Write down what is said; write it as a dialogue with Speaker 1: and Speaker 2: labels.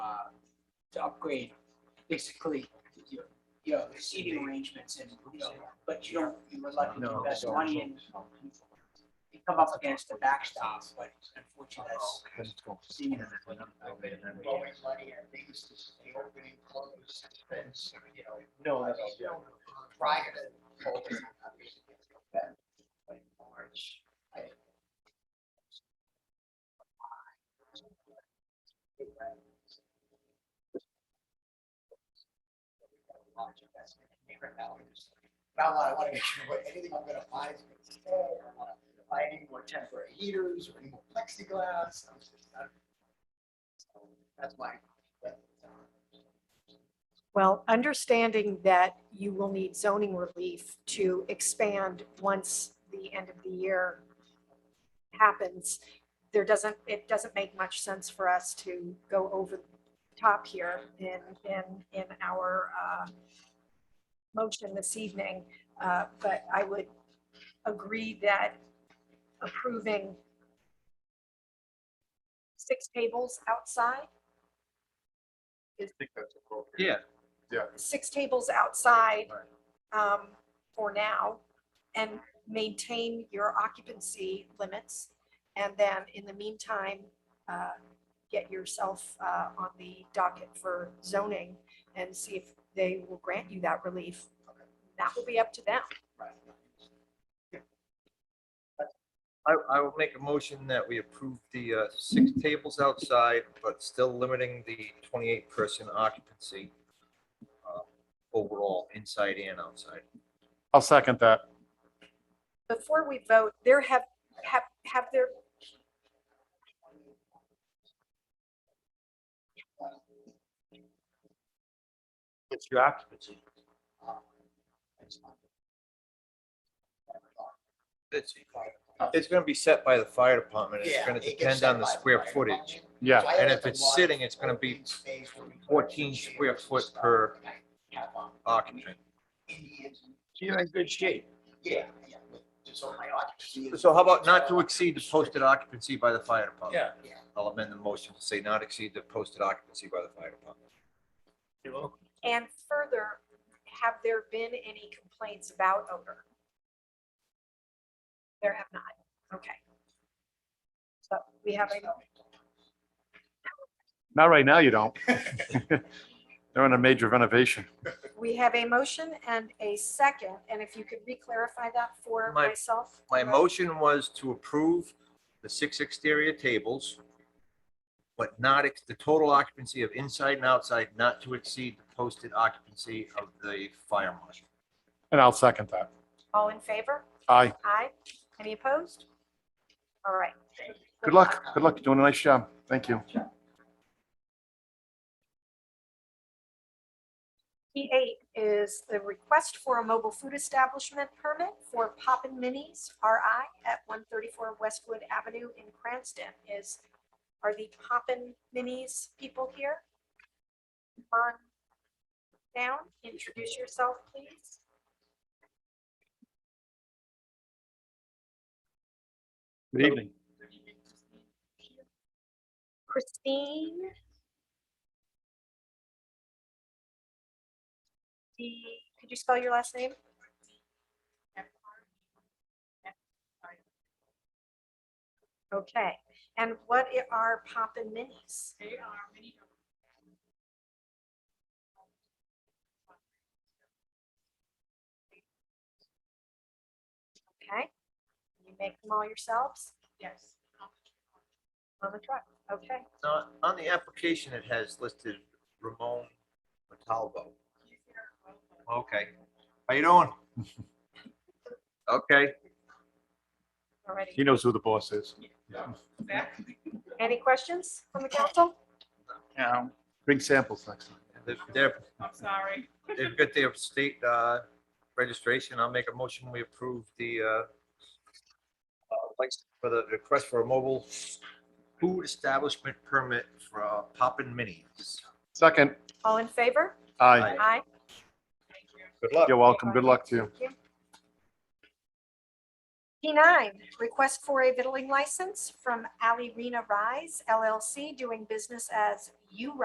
Speaker 1: uh, to upgrade basically your, your seating arrangements and, you know, but you don't, you would like to
Speaker 2: No,
Speaker 1: invest
Speaker 2: so-
Speaker 1: money in. You come up against the backstop, but
Speaker 2: Oh,
Speaker 1: unfortunately, that's seen as borrowing money and things, just the opening, close, expense, you know.
Speaker 2: No,
Speaker 1: I
Speaker 2: that's,
Speaker 1: mean, you know, Prior to COVID, obviously, it's been like March. I- Large investment in neighborhood values. Now, I want to make sure what anything I'm going to buy is going to stay. I don't want to buy any more temporary heaters or any more plexiglass. I'm just- I'm- so That's uh, my.
Speaker 3: Well, understanding that you will need zoning relief to expand once the end of the year happens, there doesn't, it doesn't make much sense for us to go over the top here in, in, in our uh, motion this evening. Uh, But I would agree that approving six tables outside
Speaker 2: yeah,
Speaker 3: six tables outside
Speaker 2: Right.
Speaker 3: um, for now and maintain your occupancy limits. And then in the meantime, uh, get yourself uh, on the docket for zoning and see if they will grant you that relief. That will be up to them.
Speaker 2: I, I will make a motion that we approve the uh, six tables outside, but still limiting the twenty-eight person occupancy uh, overall, inside and outside.
Speaker 4: I'll second that.
Speaker 3: Before we vote, there have, have, have there,
Speaker 4: It's your occupancy.
Speaker 2: It's, it's gonna be set by the fire department. It's
Speaker 1: Yeah,
Speaker 2: gonna
Speaker 1: it gets
Speaker 2: depend
Speaker 1: set
Speaker 2: on the
Speaker 1: by the
Speaker 2: square
Speaker 1: fire
Speaker 2: footage.
Speaker 1: department.
Speaker 4: Yeah,
Speaker 1: So I
Speaker 2: and
Speaker 1: have
Speaker 2: if
Speaker 1: to
Speaker 2: it's
Speaker 1: watch
Speaker 2: sitting, it's gonna
Speaker 1: open
Speaker 2: be
Speaker 1: space where we can
Speaker 2: 14
Speaker 1: share
Speaker 2: square
Speaker 1: some
Speaker 2: foot
Speaker 1: stuff.
Speaker 2: per
Speaker 1: I have, um,
Speaker 2: Occupant.
Speaker 1: Indians and-
Speaker 5: You're in good shape.
Speaker 1: Yeah, yeah. but Just on my occupancy.
Speaker 2: So how about not to exceed the posted occupancy by the fire department?
Speaker 5: Yeah.
Speaker 1: Yeah.
Speaker 2: I'll amend the motion to say not exceed the posted occupancy by the fire department.
Speaker 3: and further, have there been any complaints about odor? There have not. Okay. So we have a
Speaker 4: not right now, you don't. They're on a major renovation.
Speaker 3: We have a motion and a second, and if you could re-clarify that for
Speaker 2: My-
Speaker 3: myself.
Speaker 2: My
Speaker 3: Right.
Speaker 2: motion was to approve the six exterior tables, but not, ex- the total occupancy of inside and outside not to exceed the posted occupancy of the fire marshal.
Speaker 4: And I'll second that.
Speaker 3: All in favor?
Speaker 4: Aye.
Speaker 3: Aye. Any opposed? All right.
Speaker 4: Good luck. Good luck. You're doing a nice job. Thank you.
Speaker 3: P8 is the request for a mobile food establishment permit for Poppin' Minis RI at 134 Westwood Avenue in Cranston. Is, are the Poppin' Minis people here? Come on down, introduce yourself, please.
Speaker 4: Good evening.
Speaker 3: Christine. D, could you spell your last name? Okay, and what i- are Poppin' Minis?
Speaker 6: They are many of
Speaker 3: Okay, you make them all yourselves
Speaker 6: yes.
Speaker 3: on the truck, okay?
Speaker 2: Now, on the application, it has listed Ramon Montalvo. Okay. How you doing? Okay.
Speaker 3: all righty.
Speaker 4: He knows who the boss is.
Speaker 6: Exactly.
Speaker 3: Any questions from the council?
Speaker 5: Now,
Speaker 4: Bring samples next time.
Speaker 2: They've, they've-
Speaker 6: I'm sorry.
Speaker 2: they've got their state uh, registration. I'll make a motion. We approve the uh, uh, license for the request for a mobile food establishment permit for uh, Poppin' Minis.
Speaker 4: Second.
Speaker 3: All in favor?
Speaker 4: Aye.
Speaker 3: Aye.
Speaker 6: Thank you.
Speaker 2: Good luck.
Speaker 4: You're welcome. Good luck to you.
Speaker 3: P9, request for a vittling license from Ali Rena Rise LLC, doing business as U